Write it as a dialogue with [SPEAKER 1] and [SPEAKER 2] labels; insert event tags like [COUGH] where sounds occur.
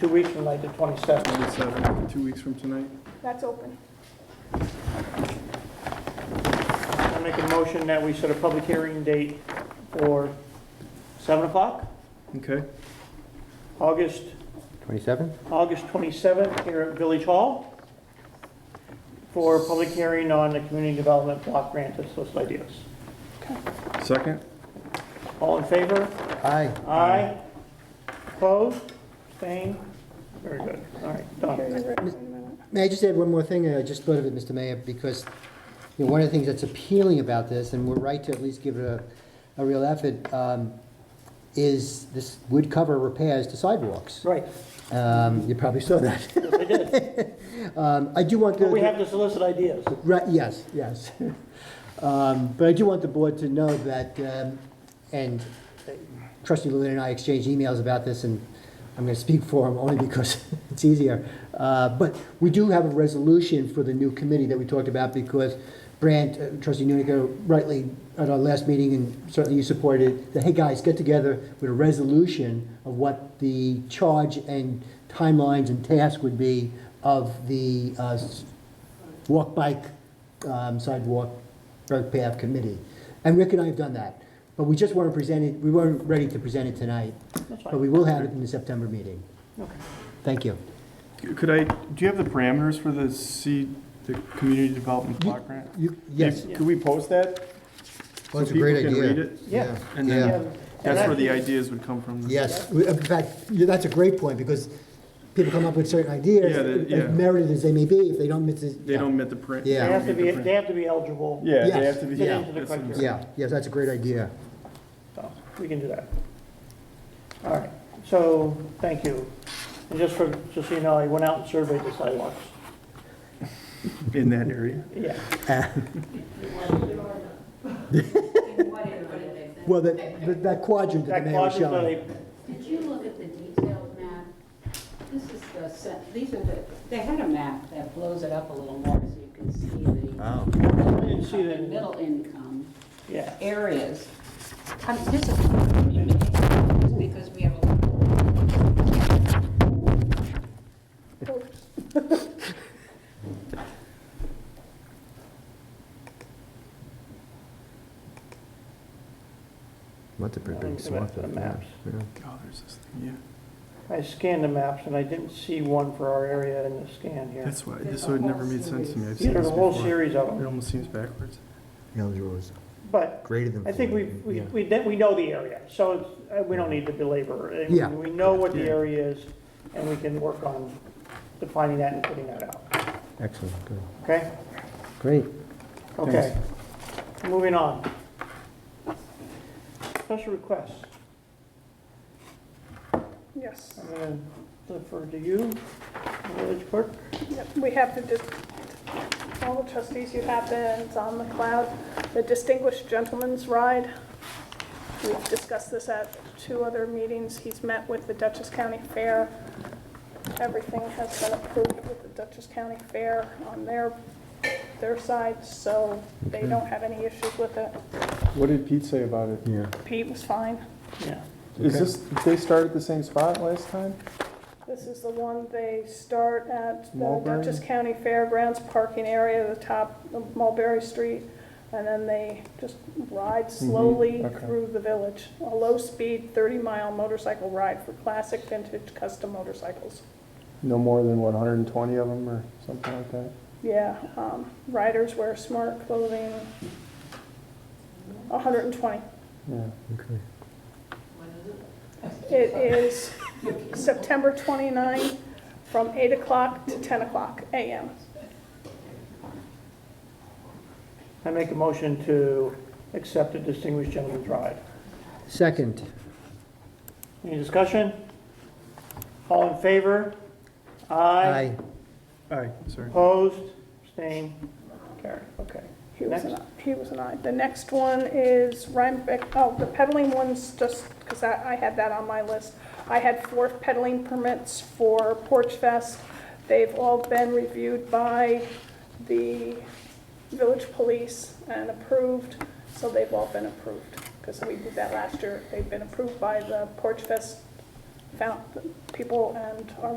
[SPEAKER 1] Two weeks from like the 27th.
[SPEAKER 2] 27, two weeks from tonight.
[SPEAKER 3] That's open.
[SPEAKER 1] I make a motion that we set a public hearing date for 7 o'clock,
[SPEAKER 2] Okay,
[SPEAKER 1] August,
[SPEAKER 4] 27?
[SPEAKER 1] August 27th here at Village Hall for a public hearing on the community development block grant of social ideas.
[SPEAKER 2] second?
[SPEAKER 1] All in favor?
[SPEAKER 4] Aye.
[SPEAKER 1] Aye. Opposed? Abstained? Very good. All right,
[SPEAKER 3] Here's
[SPEAKER 1] done.
[SPEAKER 3] a written-
[SPEAKER 4] May I just add one more thing? I just thought of it, Mr. Mayor, because, you know, one of the things that's appealing about this, and we're right to at least give it a, a real effort, um, is this would cover repairs to sidewalks.
[SPEAKER 1] Right,
[SPEAKER 4] Um, You probably saw that. [LAUGHS]
[SPEAKER 1] yes, I did.
[SPEAKER 4] Um, I do want the.
[SPEAKER 1] But we have to solicit ideas.
[SPEAKER 4] Right, yes, yes. [LAUGHS] Um, But I do want the board to know that, um, and uh, trustee Luna and I exchanged emails about this, and I'm going to speak for him only because [LAUGHS] it's easier. Uh, But we do have a resolution for the new committee that we talked about because Brandt, uh, trustee Nunica rightly, at our last meeting, and certainly you supported, that, hey, guys, get together with a resolution of what the charge and timelines and task would be of the uh, s- walk, bike, um, sidewalk, bike path committee. And Rick and I have done that, but we just weren't presented, we weren't ready to present it tonight,
[SPEAKER 1] That's
[SPEAKER 4] but
[SPEAKER 1] fine.
[SPEAKER 4] we will have it in the September meeting.
[SPEAKER 1] Okay.
[SPEAKER 4] Thank you.
[SPEAKER 2] Could I, do you have the parameters for the C, the Community Development Block Grant?
[SPEAKER 4] You, yes.
[SPEAKER 2] Could we post that?
[SPEAKER 5] Well, it's
[SPEAKER 2] so
[SPEAKER 5] a great
[SPEAKER 2] people can
[SPEAKER 5] idea.
[SPEAKER 2] read it?
[SPEAKER 1] Yeah.
[SPEAKER 2] And
[SPEAKER 5] Yeah.
[SPEAKER 2] then, that's where the
[SPEAKER 1] idea.
[SPEAKER 2] ideas would come from.
[SPEAKER 5] Yes,
[SPEAKER 4] We- In fact, yeah, that's a great point, because people come up with certain
[SPEAKER 2] Yeah,
[SPEAKER 4] ideas,
[SPEAKER 2] the-
[SPEAKER 4] as
[SPEAKER 2] yeah.
[SPEAKER 4] merited as they may be, if they don't, it's,
[SPEAKER 2] They don't meet the print.
[SPEAKER 4] Yeah.
[SPEAKER 1] They
[SPEAKER 2] don't
[SPEAKER 1] have to
[SPEAKER 2] meet the
[SPEAKER 1] be,
[SPEAKER 2] print.
[SPEAKER 1] they have to be eligible.
[SPEAKER 2] Yeah, they
[SPEAKER 4] Yes.
[SPEAKER 2] have to be.
[SPEAKER 1] Fit into the
[SPEAKER 2] that's what I'm
[SPEAKER 1] criteria.
[SPEAKER 2] saying.
[SPEAKER 4] yeah, yes, that's a great idea.
[SPEAKER 1] So, we can do that. All right, so, thank you. And just for, just so you know, I went out and surveyed the sidewalks.
[SPEAKER 2] In that area.
[SPEAKER 1] Yeah,
[SPEAKER 4] Well, that, that- that quadrant
[SPEAKER 1] that
[SPEAKER 4] that the mayor was
[SPEAKER 1] quadrant that
[SPEAKER 4] showing.
[SPEAKER 1] I,
[SPEAKER 6] Did you look at the detailed map? This is the, set- these are the, they had a map that blows it up a little more so you can see the.
[SPEAKER 1] I didn't see that.
[SPEAKER 6] Middle income
[SPEAKER 1] yeah,
[SPEAKER 6] areas. Um, This is because we have a lot of
[SPEAKER 3] Oh,
[SPEAKER 5] That's a pretty
[SPEAKER 1] Let me
[SPEAKER 5] big
[SPEAKER 1] go back
[SPEAKER 5] swath
[SPEAKER 1] to the
[SPEAKER 5] of that.
[SPEAKER 1] maps.
[SPEAKER 5] yeah.
[SPEAKER 2] God, there's this thing,
[SPEAKER 1] I scanned the maps and I didn't see one for our area in the scan
[SPEAKER 2] yeah.
[SPEAKER 1] here.
[SPEAKER 2] That's why, this would never made sense to me. I've
[SPEAKER 1] Yeah,
[SPEAKER 2] seen
[SPEAKER 1] there's
[SPEAKER 2] this
[SPEAKER 1] a whole
[SPEAKER 2] before.
[SPEAKER 1] series of
[SPEAKER 2] It
[SPEAKER 1] them,
[SPEAKER 2] almost seems backwards.
[SPEAKER 5] No, there was
[SPEAKER 1] but
[SPEAKER 5] greater than.
[SPEAKER 1] I think we,
[SPEAKER 5] 40,
[SPEAKER 1] we,
[SPEAKER 5] yeah.
[SPEAKER 1] we did- we know the area, so it's- uh, we don't need to belabor. it.
[SPEAKER 4] Yeah.
[SPEAKER 1] We know what the
[SPEAKER 2] Yeah.
[SPEAKER 1] area is and we can work on defining that and putting that out,
[SPEAKER 4] Excellent, good.
[SPEAKER 1] okay?
[SPEAKER 4] Great.
[SPEAKER 1] Okay, moving on. Special requests,
[SPEAKER 3] Yes,
[SPEAKER 1] I'm gonna defer to you, village clerk.
[SPEAKER 3] Yep. we have the, dis- all the trustees, you have the, it's on the cloud, the Distinguished Gentleman's Ride. We've discussed this at two other meetings. He's met with the Dutchess County Fair. Everything has been approved with the Dutchess County Fair on their, their side, so they don't have any issues with it.
[SPEAKER 7] What did Pete say about it?
[SPEAKER 5] Yeah.
[SPEAKER 3] Pete was fine.
[SPEAKER 1] Yeah,
[SPEAKER 7] Is this, did they start at the same spot last time?
[SPEAKER 3] This is the one they start at the
[SPEAKER 7] Mulberry?
[SPEAKER 3] Dutchess County Fairgrounds parking area, the top of Mulberry Street, and then they just ride slowly
[SPEAKER 7] Mm-hmm. okay.
[SPEAKER 3] through the village. A low-speed, 30-mile motorcycle ride for classic vintage custom motorcycles.
[SPEAKER 7] No more than what, 120 of them or something like that?
[SPEAKER 3] Yeah, um, riders wear smart clothing, 120.
[SPEAKER 7] Yeah.
[SPEAKER 5] Okay.
[SPEAKER 3] It is September 29, from 8 o'clock to 10 o'clock a.m.
[SPEAKER 1] I make a motion to accept the distinguished gentleman's ride.
[SPEAKER 4] Second,
[SPEAKER 1] Any discussion? All in favor? Aye.
[SPEAKER 4] aye.
[SPEAKER 2] All right, sorry.
[SPEAKER 1] Opposed, abstained, carried, okay.
[SPEAKER 3] He was an,
[SPEAKER 1] Next.
[SPEAKER 3] he was an aye. The next one is Rhinebeck, oh, the peddling one's just, because I, I had that on my list. I had four peddling permits for Porch Fest. They've all been reviewed by the village police and approved, so they've all been approved. Because we did that last year. They've been approved by the Porch Fest found people and our